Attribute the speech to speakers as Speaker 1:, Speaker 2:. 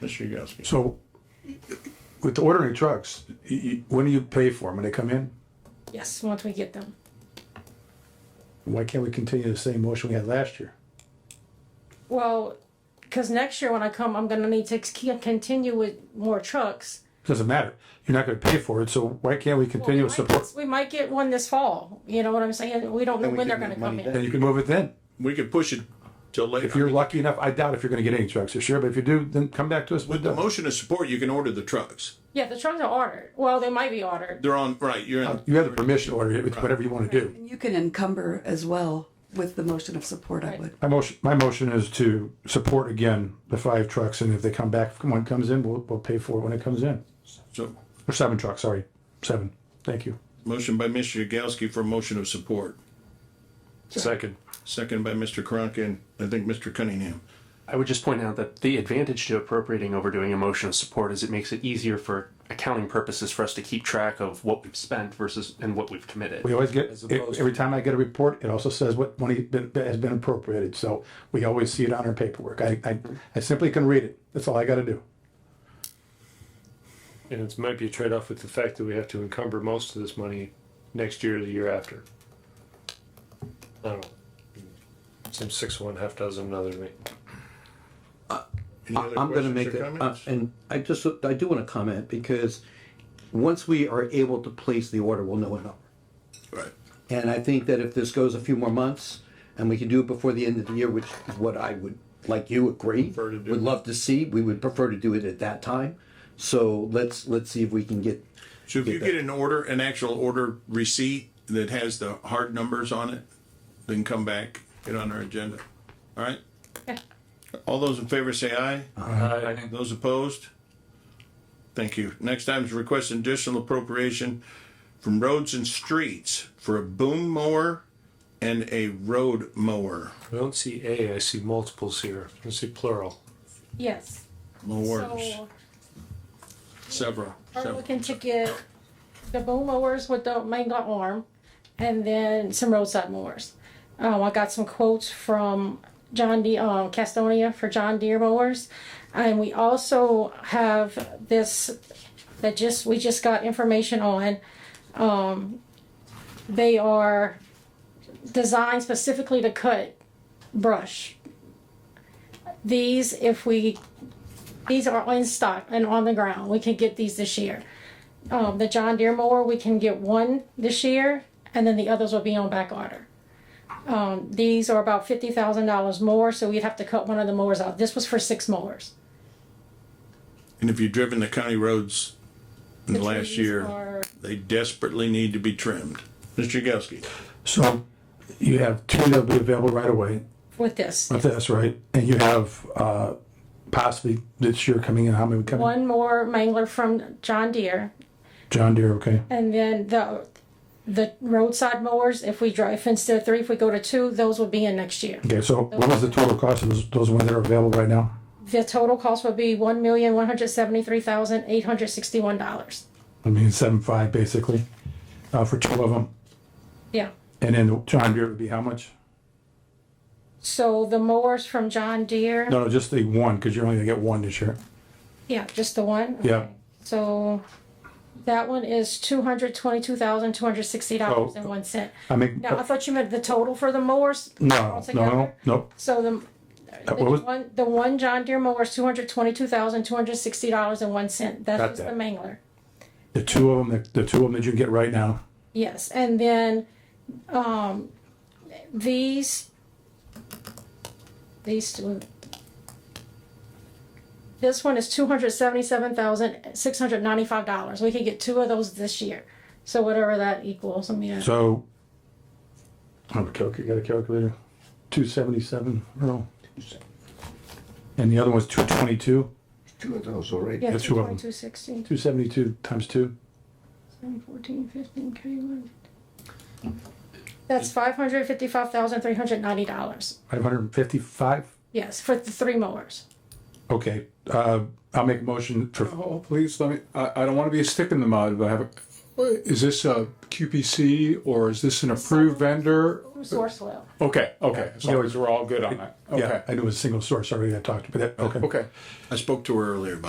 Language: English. Speaker 1: Mr. Yagowski.
Speaker 2: So with ordering trucks, you, you, when do you pay for them? When they come in?
Speaker 3: Yes, once we get them.
Speaker 2: Why can't we continue the same motion we had last year?
Speaker 3: Well, because next year when I come, I'm gonna need to ex- continue with more trucks.
Speaker 2: Doesn't matter. You're not gonna pay for it, so why can't we continue
Speaker 3: We
Speaker 2: to
Speaker 3: might
Speaker 2: support?
Speaker 3: get- We might get one this fall, you know what I'm saying? We don't know
Speaker 4: Then we
Speaker 3: when they're
Speaker 4: can
Speaker 3: gonna
Speaker 4: make
Speaker 3: come
Speaker 4: money
Speaker 3: in.
Speaker 4: then.
Speaker 2: Then you can move it then.
Speaker 1: We could push it till later.
Speaker 2: If you're lucky enough, I doubt if you're gonna get any trucks this year, but if you do, then come back to us.
Speaker 1: With the motion of support, you can order the trucks.
Speaker 3: Yeah, the trucks are ordered. Well, they might be ordered.
Speaker 1: They're on, right, you're
Speaker 4: Uh,
Speaker 1: in.
Speaker 2: You have the permission to order it, it's whatever you wanna do.
Speaker 5: And you can encumber as well with the motion of support, I would.
Speaker 2: My motion, my motion is to support again the five trucks, and if they come back, if one comes in, we'll, we'll pay for it when it comes in.
Speaker 1: So,
Speaker 2: Or seven trucks, sorry, seven. Thank you.
Speaker 1: motion by Mr. Yagowski for motion of support.
Speaker 6: Second.
Speaker 1: Second by Mr. Karanka and I think Mr. Cunningham.
Speaker 6: I would just point out that the advantage to appropriating over doing a motion of support is it makes it easier for accounting purposes for us to keep track of what we've spent versus and what we've committed.
Speaker 2: We always get, e, every time I get a report, it also says what money been- has been appropriated, so we always see it on our paperwork. I, I, I simply can read it, that's all I gotta do.
Speaker 7: And it might be a trade-off with the fact that we have to encumber most of this money next year or the year after. I don't know. Seems six of one, half dozen of another to me.
Speaker 1: Any other
Speaker 4: I'm gonna
Speaker 1: questions
Speaker 4: make
Speaker 1: or
Speaker 4: it, uh,
Speaker 1: comments?
Speaker 4: and I just, I do wanna comment, because once we are able to place the order, we'll know a number.
Speaker 1: Right.
Speaker 4: And I think that if this goes a few more months, and we can do it before the end of the year, which is what I would, like you, agree,
Speaker 1: Prefer to do.
Speaker 4: would love to see, we would prefer to do it at that time. So let's, let's see if we can get,
Speaker 1: So if you
Speaker 4: that.
Speaker 1: get an order, an actual order receipt that has the hard numbers on it, then come back, get on our agenda. All right? All those in favor say aye. Aye. Those opposed? Thank you. Next item is request additional appropriation from roads and streets for a boom mower and a road mower.
Speaker 7: I don't see A, I see multiples here. I see plural.
Speaker 3: Yes.
Speaker 1: Mowers,
Speaker 3: So,
Speaker 1: several,
Speaker 3: are
Speaker 1: several.
Speaker 3: looking to get the boom mowers with the manga arm and then some roadside mowers. Um, I got some quotes from John D, um, Castonia for John Deere mowers. And we also have this that just, we just got information on. Um, they are designed specifically to cut brush. These, if we these are in stock and on the ground. We can get these this year. Um, the John Deere mower, we can get one this year, and then the others will be on back order. Um, these are about fifty thousand dollars more, so we'd have to cut one of the mowers out. This was for six mowers.
Speaker 1: And if you've driven the county roads in the last
Speaker 3: trees
Speaker 1: year.
Speaker 3: are-
Speaker 1: They desperately need to be trimmed. Mr. Yagowski,
Speaker 2: So you have two that'll be available right away,
Speaker 3: With this,
Speaker 2: if that's right, and you have, uh, possibly this year coming in, how many coming?
Speaker 3: one more mangler from John Deere,
Speaker 2: John Deere, okay.
Speaker 3: and then the the roadside mowers. If we drive instead of three, if we go to two, those will be in next year.
Speaker 2: Okay, so what was the total cost of those, those ones that are available right now?
Speaker 3: The total cost would be one million one hundred seventy three thousand eight hundred sixty one dollars.
Speaker 2: I mean, seven five basically, uh, for two of them,
Speaker 3: Yeah.
Speaker 2: and then John Deere would be how much?
Speaker 3: So the mowers from John Deere?
Speaker 2: No, no, just the one, cause you're only gonna get one this year.
Speaker 3: Yeah, just the one?
Speaker 2: Yeah.
Speaker 3: So that one is two hundred twenty-two thousand, two hundred sixty dollars and one cent.
Speaker 2: I mean,
Speaker 3: Now, I thought you meant the total for the mowers?
Speaker 2: no, no, no,
Speaker 3: altogether.
Speaker 2: no,
Speaker 3: So the, the
Speaker 2: what was-
Speaker 3: one, the one John Deere mower is two hundred twenty-two thousand, two hundred sixty dollars and one cent.
Speaker 2: Got
Speaker 3: That's just
Speaker 2: that.
Speaker 3: the mangler.
Speaker 2: the two of them, the two of them that you can get right now.
Speaker 3: Yes, and then, um, these, these two. This one is two hundred seventy-seven thousand, six hundred ninety-five dollars. We could get two of those this year. So whatever that equals, I mean,
Speaker 2: So, I have a calculator, got a calculator, two seventy-seven, no. And the other one's two twenty-two,
Speaker 8: Two of those already.
Speaker 3: yeah,
Speaker 2: the
Speaker 3: two
Speaker 2: two of them.
Speaker 3: twenty-two, sixteen,
Speaker 2: two seventy-two times two.
Speaker 3: fourteen, fifteen, K one. That's five hundred fifty-five thousand, three hundred ninety dollars.
Speaker 2: Five hundred and fifty-five.
Speaker 3: Yes, for the three mowers.
Speaker 2: Okay, uh, I'll make a motion for,
Speaker 9: Oh, please, let me, I, I don't want to be a stick in the mud, but I have, is this a QPC or is this an approved vendor?
Speaker 3: Through source oil.
Speaker 9: Okay, okay, as long as we're all good on that, okay.
Speaker 2: Yeah, I knew it was a single source already I talked, but that, okay.
Speaker 9: Okay.
Speaker 1: I spoke to her earlier about